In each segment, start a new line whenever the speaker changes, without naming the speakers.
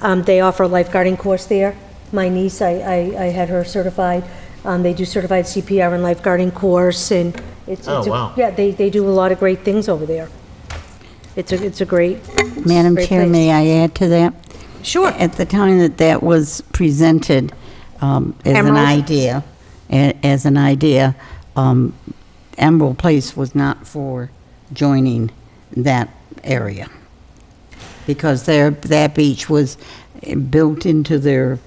Um, They offer a lifeguarding course there. My niece, I, I I had her certified. Um, They do certified CPR and lifeguarding course, and it's...
Oh,
it's a-
wow.
Yeah, they, they do a lot of great things over there. It's a, it's a great...
Madam
great
Chair,
place.
may I add to that?
Sure.
At the time that that was presented um, as an
Emerald?
idea, a- as an idea, um, Emerald Place was not for joining that area. Because their, that beach was built into their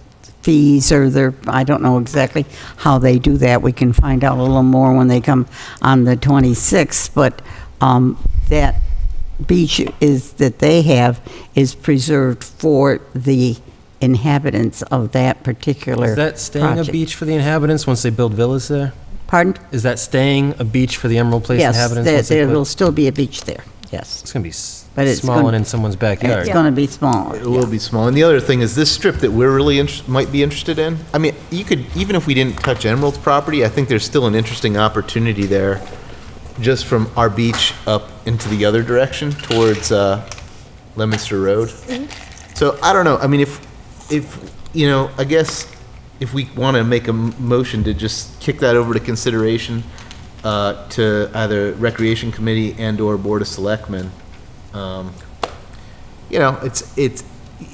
fees or their, I don't know exactly how they do that. We can find out a little more when they come on the 26th, but um, that beach is, that they have is preserved for the inhabitants of that particular
Is that staying a
project.
beach for the inhabitants once they build villas there?
Pardon?
Is that staying a beach for the Emerald Place
Yes,
inhabitants?
there,
once they
there
put-
will still be a beach there, yes.
It's gonna be s-
But it's
small
gonna-
and in someone's
It's
backyard.
going to be smaller.
It will be small. And the other thing is this strip that we're really inter- might be interested in. I mean, you could even if we didn't touch Emerald's property, I think there's still an interesting opportunity there, just from our beach up into the other direction towards uh, Lemonster Road. So I don't know. I mean, if if you know, I guess if we want to make a m- motion to just kick that over to consideration uh, to either Recreation Committee and or Board of Selectmen. Um, you know, it's, it's,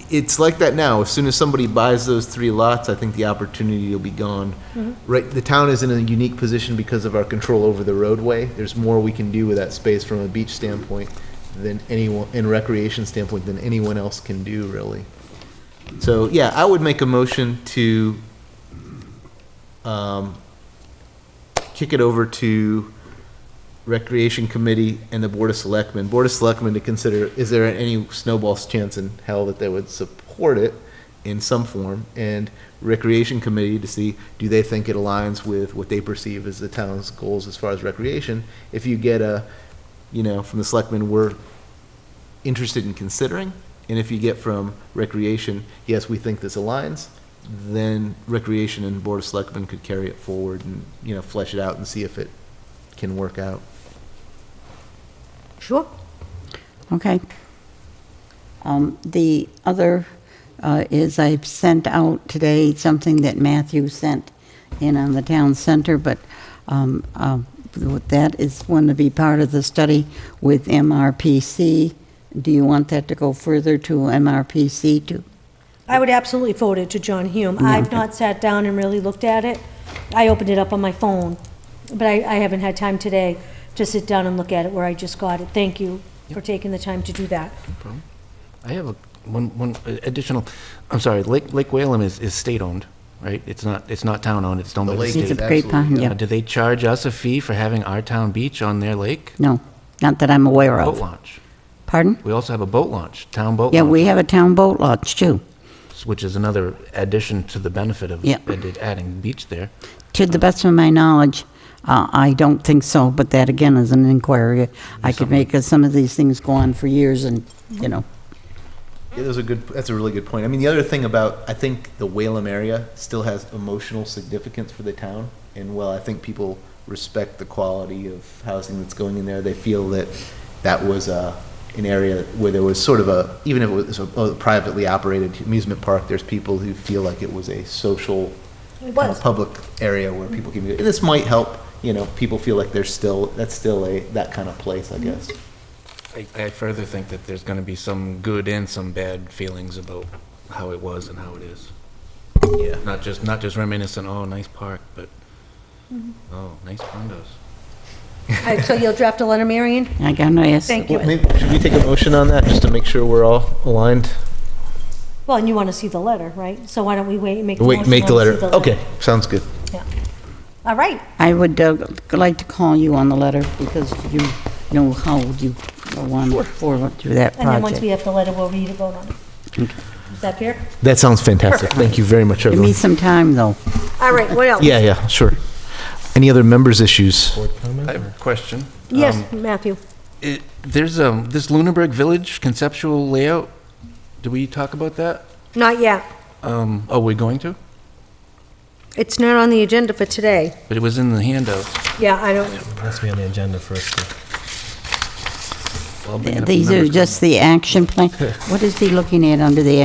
it's like that now. As soon as somebody buys those three lots, I think the opportunity will be gone. Right, the town is in a unique position because of our control over the roadway. There's more we can do with that space from a beach standpoint than anyone, and recreation standpoint than anyone else can do, really. So, yeah, I would make a motion to, um, kick it over to Recreation Committee and the Board of Selectmen. Board of Selectmen to consider, is there any snowball's chance in hell that they would support it in some form? And Recreation Committee to see, do they think it aligns with what they perceive as the town's goals as far as recreation? If you get a, you know, from the Selectmen, we're interested in considering, and if you get from Recreation, yes, we think this aligns, then Recreation and Board of Selectmen could carry it forward and, you know, flesh it out and see if it can work out.
Sure.
Okay. Um, The other uh, is I've sent out today something that Matthew sent in on the town center, but um, uh, that is going to be part of the study with MRPC. Do you want that to go further to MRPC to?
I would absolutely forward it to John Hume.
Mm-hmm.
I've not sat down and really looked at it. I opened it up on my phone, but I, I haven't had time today to sit down and look at it where I just got it. Thank you for taking the time to do that.
I have a, one, one additional, I'm sorry, Lake, Lake Whalum is, is state-owned, right? It's not, it's not town-owned, it's owned by the
lake
state.
is
It's a great
absolutely
pond,
Uh,
yeah.
Do they charge us a fee for having our town beach on their lake?
No, not that I'm aware
Boat
of.
launch.
Pardon?
We also have a boat launch, town boat launch.
Yeah, we have a town boat launch, too.
Which is another addition to the benefit of
Yeah.
added- adding beach there.
To the best of my knowledge, uh, I don't think so, but that again is an inquiry I could make, because some of these things go on for years and, you know,
Yeah, that's a good, that's a really good point. I mean, the other thing about, I think the Whalum area still has emotional significance for the town. And while I think people respect the quality of housing that's going in there, they feel that that was uh, an area where there was sort of a, even if it was a a privately operated amusement park, there's people who feel like it was a social
It
kind of
was.
public area where people can, and this might help, you know, people feel like they're still, that's still a, that kind of place, I guess.
I, I further think that there's gonna be some good and some bad feelings about how it was and how it is.
Yeah.
Not just, not just reminiscent, oh, nice park, but,
Mm-hmm.
oh, nice condos.
All right, so you'll draft a letter, Marion?
I got no ask.
Thank you.
Maybe, should we take a motion on that, just to make sure we're all aligned?
Well, and you want to see the letter, right? So why don't we wait, and make the motion?
Wait, make the
when we
letter,
see
okay, sounds good.
All right,
I would uh, like to call you on the letter because you know how you want forward through that
and then once we have
project.
the letter, we'll read it, vote on it. Is that fair?
That sounds fantastic, thank you very much,
Give me some time, though.
All right, what else?
Yeah, yeah, sure. Any other members' issues?
I have a question. Um,
Yes, Matthew.
it- There's, um, this Lunenburg Village conceptual layout, do we talk about that?
Not yet.
Um, oh, we're going to?
It's not on the agenda for today.
But it was in the handout.
Yeah, I don't,
Has to be on the agenda for us to.
Well, I'll bring it up in
These are
members'
just the action plan. What is he looking at under the